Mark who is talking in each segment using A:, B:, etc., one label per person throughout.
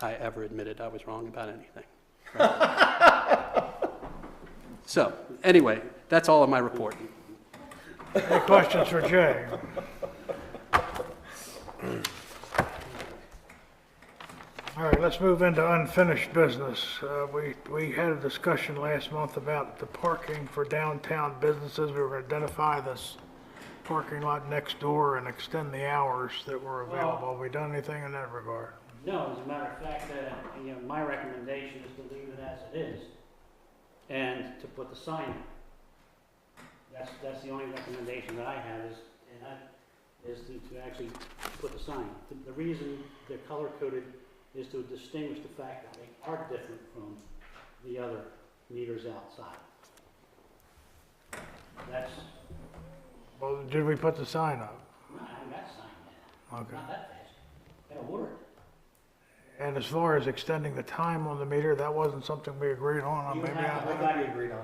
A: I ever admitted I was wrong about anything. So, anyway, that's all of my report.
B: Any questions for Jay? All right, let's move into unfinished business. Uh, We, we had a discussion last month about the parking for downtown businesses. We were going to identify this parking lot next door and extend the hours that were available. Have we done anything in that regard?
C: No, as a matter of fact, uh, you know, my recommendation is to leave it as it is and to put the sign in. That's, that's the only recommendation that I have is, and I, is to, to actually put the sign. The, the reason they're color coded is to distinguish the fact that they are different from the other meters outside. That's,
B: Well, did we put the sign up?
C: I haven't got sign yet,
B: Okay.
C: not that fast. Got a word.
B: And as far as extending the time on the meter, that wasn't something we agreed on.
C: You
B: Maybe
C: have to
B: I-
C: look at it.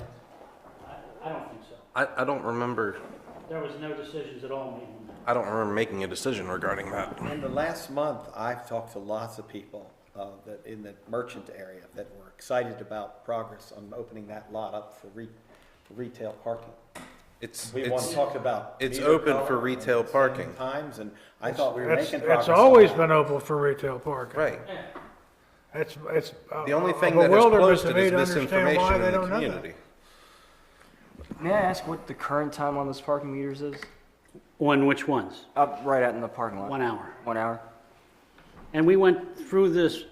C: I, I don't think so.
D: I, I don't remember,
C: There was no decisions at all made on that.
D: I don't remember making a decision regarding that.
E: In the last month, I've talked to lots of people uh, that, in the merchant area that were excited about progress on opening that lot up for re- retail parking.
D: It's,
E: We want to
D: it's,
E: talk about.
D: it's
E: meter
D: open
E: color
D: for
E: and
D: retail
E: setting
D: parking.
E: Times, and I thought we were
B: It's,
E: making progress.
B: it's always
E: on that.
B: been open for retail parking.
D: right.
B: It's, it's.
D: The only thing that has closed it is misinformation in the community.
F: May I ask what the current time on those parking meters is?
C: On which ones?
F: Up right out in the parking lot.
C: One hour.
F: One hour?
C: And we went through this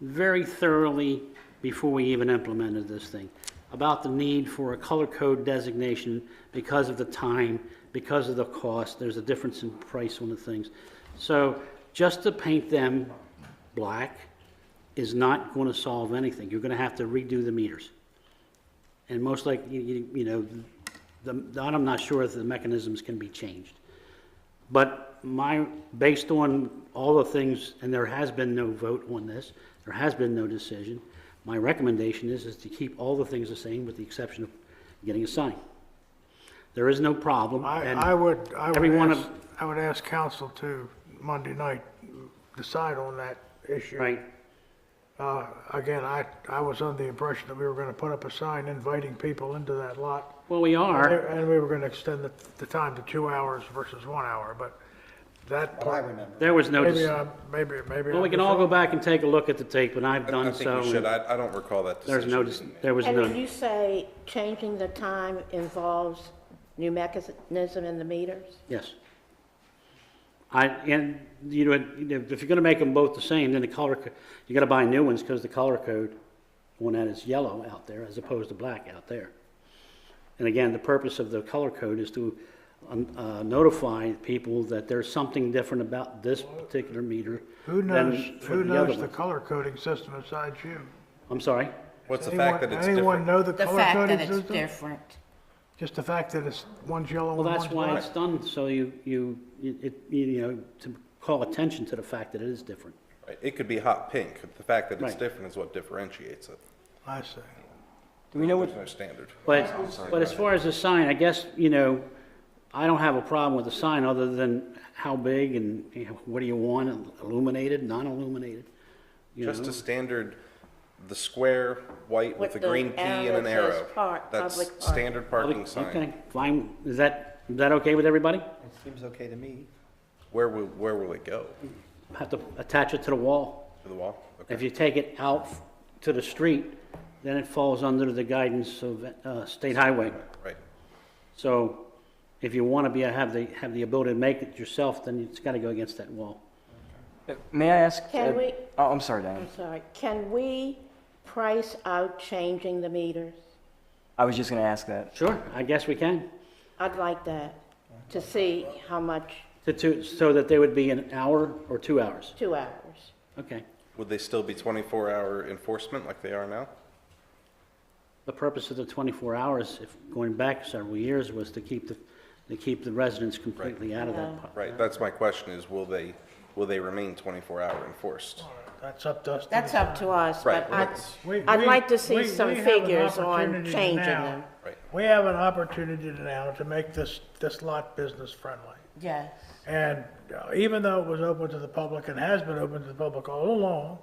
C: very thoroughly before we even implemented this thing, about the need for a color code designation because of the time, because of the cost, there's a difference in price on the things. So just to paint them black is not going to solve anything. You're going to have to redo the meters. And most likely, you- you you know, the, I'm not sure if the mechanisms can be changed. But my, based on all the things, and there has been no vote on this, there has been no decision, my recommendation is, is to keep all the things the same with the exception of getting a sign. There is no problem.
B: I,
C: and
B: I would, I would
C: every one
B: ask,
C: of-
B: I would ask council to Monday night decide on that issue.
C: Right,
B: Uh, again, I, I was under the impression that we were gonna put up a sign inviting people into that lot.
C: well, we are,
B: And we were gonna extend the, the time to two hours versus one hour, but that,
E: What I remember.
C: there was no,
B: maybe,
C: deci-
B: I'm- maybe, maybe.
C: well, we
B: I'm
C: can
B: just
C: all go
B: wrong.
C: back and take a look at the tape, and I've
D: I
C: done so.
D: think we should,
C: and
D: I, I don't recall that
C: There's no,
D: decision.
C: dec- there was
G: And when
C: none.
G: you say changing the time involves new mechanism in the meters?
C: Yes. I, and, you know, you know, if you're gonna make them both the same, then the color, co- you gotta buy new ones, because the color code on that is yellow out there, as opposed to black out there. And again, the purpose of the color code is to um, uh, notify people that there's something different about this particular meter
B: Who
C: than
B: knows,
C: for
B: who
C: the other
B: knows the
C: one.
B: color coding system besides you?
C: I'm sorry?
D: What's the
B: Anyone-
D: fact that it's
B: Anyone
D: different?
B: know the
H: The
B: color
H: fact
B: coding
H: that it's
B: system?
H: different.
B: Just the fact that it's, one's yellow and
C: Well,
B: one's
C: that's
B: black?
C: why it's done, so you, you, it, you know, to call attention to the fact that it is different.
D: Right, It could be hot pink. The fact that it's
C: Right.
D: different is what differentiates it.
B: I see.
F: Do we know
D: There's
F: what,
D: no standard.
C: But, but as far as the sign, I guess, you know, I don't have a problem with the sign other than how big and, you know, what do you want, illuminated, non-illuminated? you
D: Just
C: know?
D: a standard, the square, white with
G: With
D: a green
G: the
D: key and
G: arrow
D: an
G: that
D: arrow.
G: says park,
D: That's
G: public park.
D: standard parking sign.
C: Okay, fine, is that, is that okay with everybody?
E: It seems okay to me.
D: Where will, where will it go?
C: Have to attach it to the wall.
D: To the wall?
C: If
D: Okay.
C: you take it out to the street, then it falls under the guidance of, uh, state highway.
D: Right.
C: So if you want to be, have the, have the ability to make it yourself, then it's got to go against that wall.
F: may I ask?
G: Can
F: uh,
G: we-
F: Oh, I'm sorry, Diane.
G: I'm sorry, can we price out changing the meters?
F: I was just gonna ask that.
C: Sure, I guess we can.
G: I'd like that, to see how much,
C: To, to, so that they would be an hour or two hours?
G: two hours.
C: Okay.
D: Would they still be twenty-four hour enforcement like they are now?
C: The purpose of the 24 hours, if going back several years, was to keep the, to keep the residents completely out of that. part.
D: Right, that's my question is, will they, will they remain twenty-four hour enforced?
B: That's up to us. to
G: That's up to us,
D: Right,
G: but
D: well,
G: I,
D: that's-
B: We-
G: I'd
B: we-
G: like to
B: we-
G: see some
B: we have an
G: figures on
B: opportunity
G: changing
B: now-
G: them.
D: Right.
B: We have an opportunity now to make this, this lot business friendly.
G: Yes.
B: And uh, even though it was open to the public and has been open to the public all along,